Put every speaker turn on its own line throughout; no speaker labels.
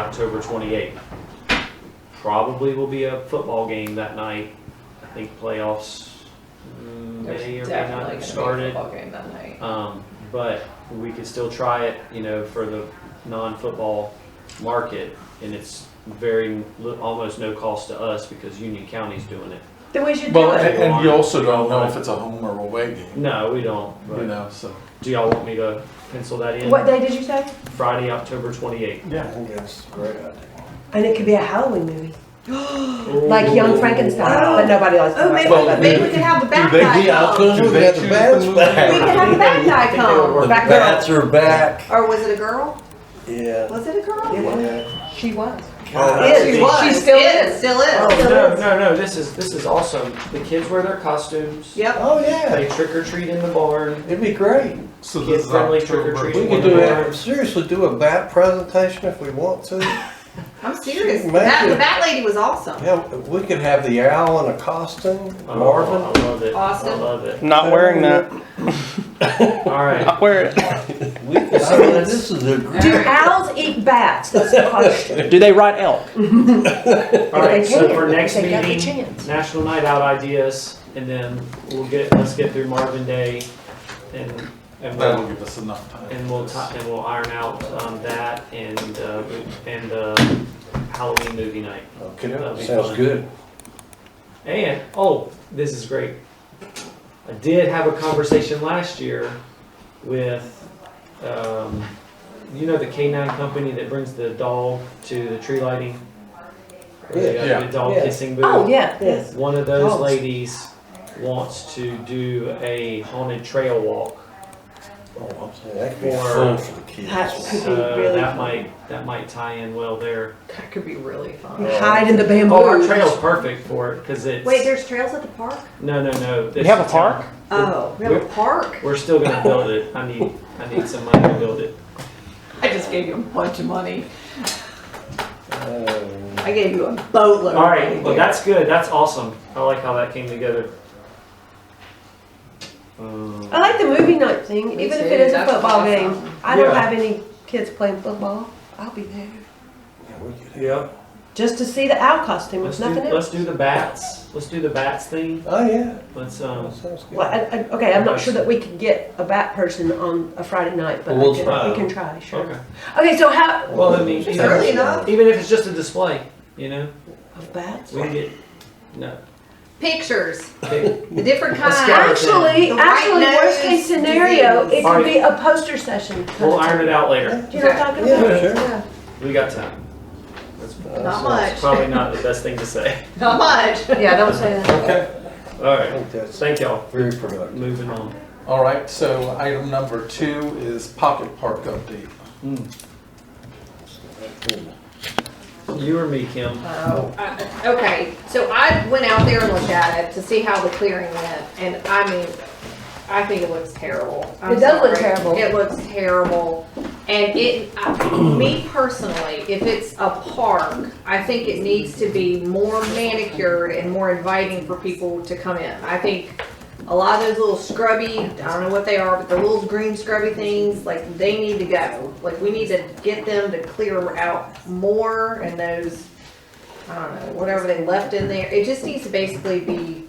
October 28th. Probably will be a football game that night. I think playoffs mm,
There's
may or may
definitely gonna
not
be a
have started.
football game that night.
Um, but we could still try it, you know, for the non-football market, and it's very li- almost no cost to us because Union County's doing it.
Then we should do
Well,
it.
and, and you also don't know if it's a home or away game,
No, we don't.
you
But
know, so.
do y'all want me to pencil that in?
What day did you say?
Friday, October 28th.
Yeah.
I think that's a great idea.
And it could be a Halloween movie, like Young Frankenstein,
Oh.
but nobody likes.
Oh, maybe,
Well,
maybe we could have the
Do
bad
they
guy
be out
come.
there?
Do
We
they
got the
choose the
bats
movie?
back.
We could have the bad guy
Think they would
come.
work.
The
Back
bats
girl.
are back.
Or was it a girl?
Yeah.
Was it a girl?
Yeah.
She was.
Uh,
God.
She was. She still is.
Still is.
Oh no, no, no! This is this is awesome. The kids wear their costumes.
Yep.
Oh, yeah.
They trick or treat in the barn.
It'd be great.
So
Kid
this is
friendly
October
trick-or-treating.
We could
21.
do it, seriously, do a bat presentation if we want to.
I'm serious.
She
The
made
bat,
it.
the bat lady was awesome.
Yeah, we could have the owl in a costume,
Oh,
Marvin.
I love it. I
Austin.
love it.
Not wearing that.
All right.
Not wearing
We, I mean, this is a great.
Do owls eat bats? That's the question.
it. Do they ride elk?
All right.
They
So
can,
for
if
next
they got the
meeting,
chance.
National Night Out ideas, and then we'll get let's get through Marvin Day, and and
That'll
we'll,
give us enough time.
and we'll ti- and we'll iron out um, that and uh, and uh, Halloween movie night.
Okay,
That'd be
sounds
fun.
good.
And, oh, this is great. I did have a conversation last year with, um, you know, the K9 company that brings the doll to the tree lighting? Or the-
Yeah,
yeah,
The doll
yeah.
kissing booth?
Oh, yeah, yes.
One of those
Dogs.
ladies wants to do a haunted trail walk.
Oh, I'm saying, that could be
Or-
fun for the
Hats.
kids.
Could be
So
really
that
fun.
might, that might tie in well there.
That could be really fun.
Hide in the bamboo.
Oh, our trail's perfect for it, cause it's,
Wait, there's trails at the park?
no, no, no.
You have a park?
Oh, we have a park?
We're still gonna build it. I need, I need some money to build it.
I just gave you a bunch of money.
Um,
I gave you a boatload of money.
All right, well,
dude.
that's good. That's awesome. I like how that came together. Um,
I like the movie night thing, even if it is a
That's
football
awesome.
game. I don't
Yeah.
have any kids playing football. I'll be there
yeah, we could-
yeah.
just to see the owl costume.
Let's
It's
do,
nothing else.
let's do the bats. Let's do the bats thing.
Oh, yeah,
Let's
that
um.
sounds good.
Well, I, I, okay, I'm not sure that we could get a bat person on a Friday night, but
We'll
I can,
try.
we can try. Sure.
Okay.
Okay, so how
Well, I mean,
It's
you know,
early enough.
even if it's just a display, you know,
of bats?
we can get no.
Pictures,
Okay.
the different
Let's go.
kinds.
Actually,
The white
actually, worst
nose
case scenario, it
disease.
could be a poster session.
We'll iron it out later.
Do you know what I'm talking about?
Yeah, sure.
Yeah,
We got time. That's
Not
sounds-
much,
probably not the best thing to say.
not much.
Yeah, don't say that.
Okay,
All
I
right.
think that's
Thank y'all.
very productive.
Moving on.
all right, so item number two is pocket park update.
You or me, Kim?
Oh, I- okay, so I went out there and looked at it to see how the clearing went, and I mean, I think it looks terrible. I'm
It does look
sorry.
terrible.
It looks terrible, and it, I- me personally, if it's a park, I think it needs to be more manicured and more inviting for people to come in. I think a lot of those little scrubby, I don't know what they are, but the little green scrubby things, like, they need to go. Like, we need to get them to clear out more and those I don't know, whatever they left in there, it just needs to basically be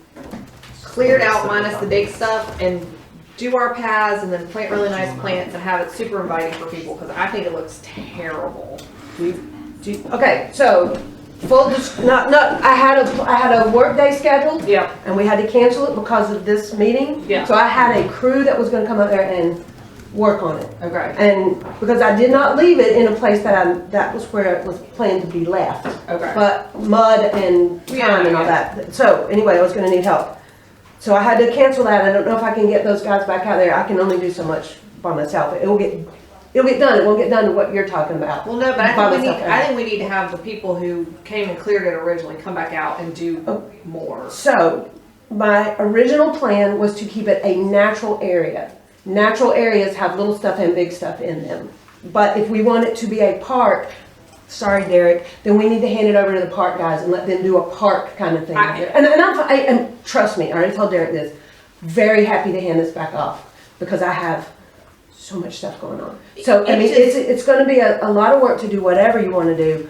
cleared out minus the big stuff and do our paths and then plant really nice plants and have it super inviting for people, cause I think it looks terrible.
Do- Okay, so, full, dis- not, not, I had a, I had a work day scheduled,
Yep.
and we had to cancel it because of this meeting.
Yeah.
So I had a crew that was gonna come up there and work on it.
Okay,
And, because I did not leave it in a place that I, that was where it was planned to be left.
okay.
But mud and
Yeah,
time and all that. So anyway, I was gonna need help. So I had to cancel that. I don't know if I can get those guys back out there. I can only do so much by myself. It will get, it'll get done. It won't get done to what you're talking about.
Well, no, but I
By
think we need,
myself,
I think we need to have the people who came and cleared it originally come back out and do
Oh.
more.
So my original plan was to keep it a natural area. Natural areas have little stuff and big stuff in them. But if we want it to be a park, sorry Derek, then we need to hand it over to the park guys and let them do a park kind of thing.
I-
And, and I'm, I, and trust me, I already told Derek this, very happy to hand this back off because I have so much stuff going on. So, I
It
mean,
just-
it's, it's gonna be a, a lot of work to do whatever you wanna do,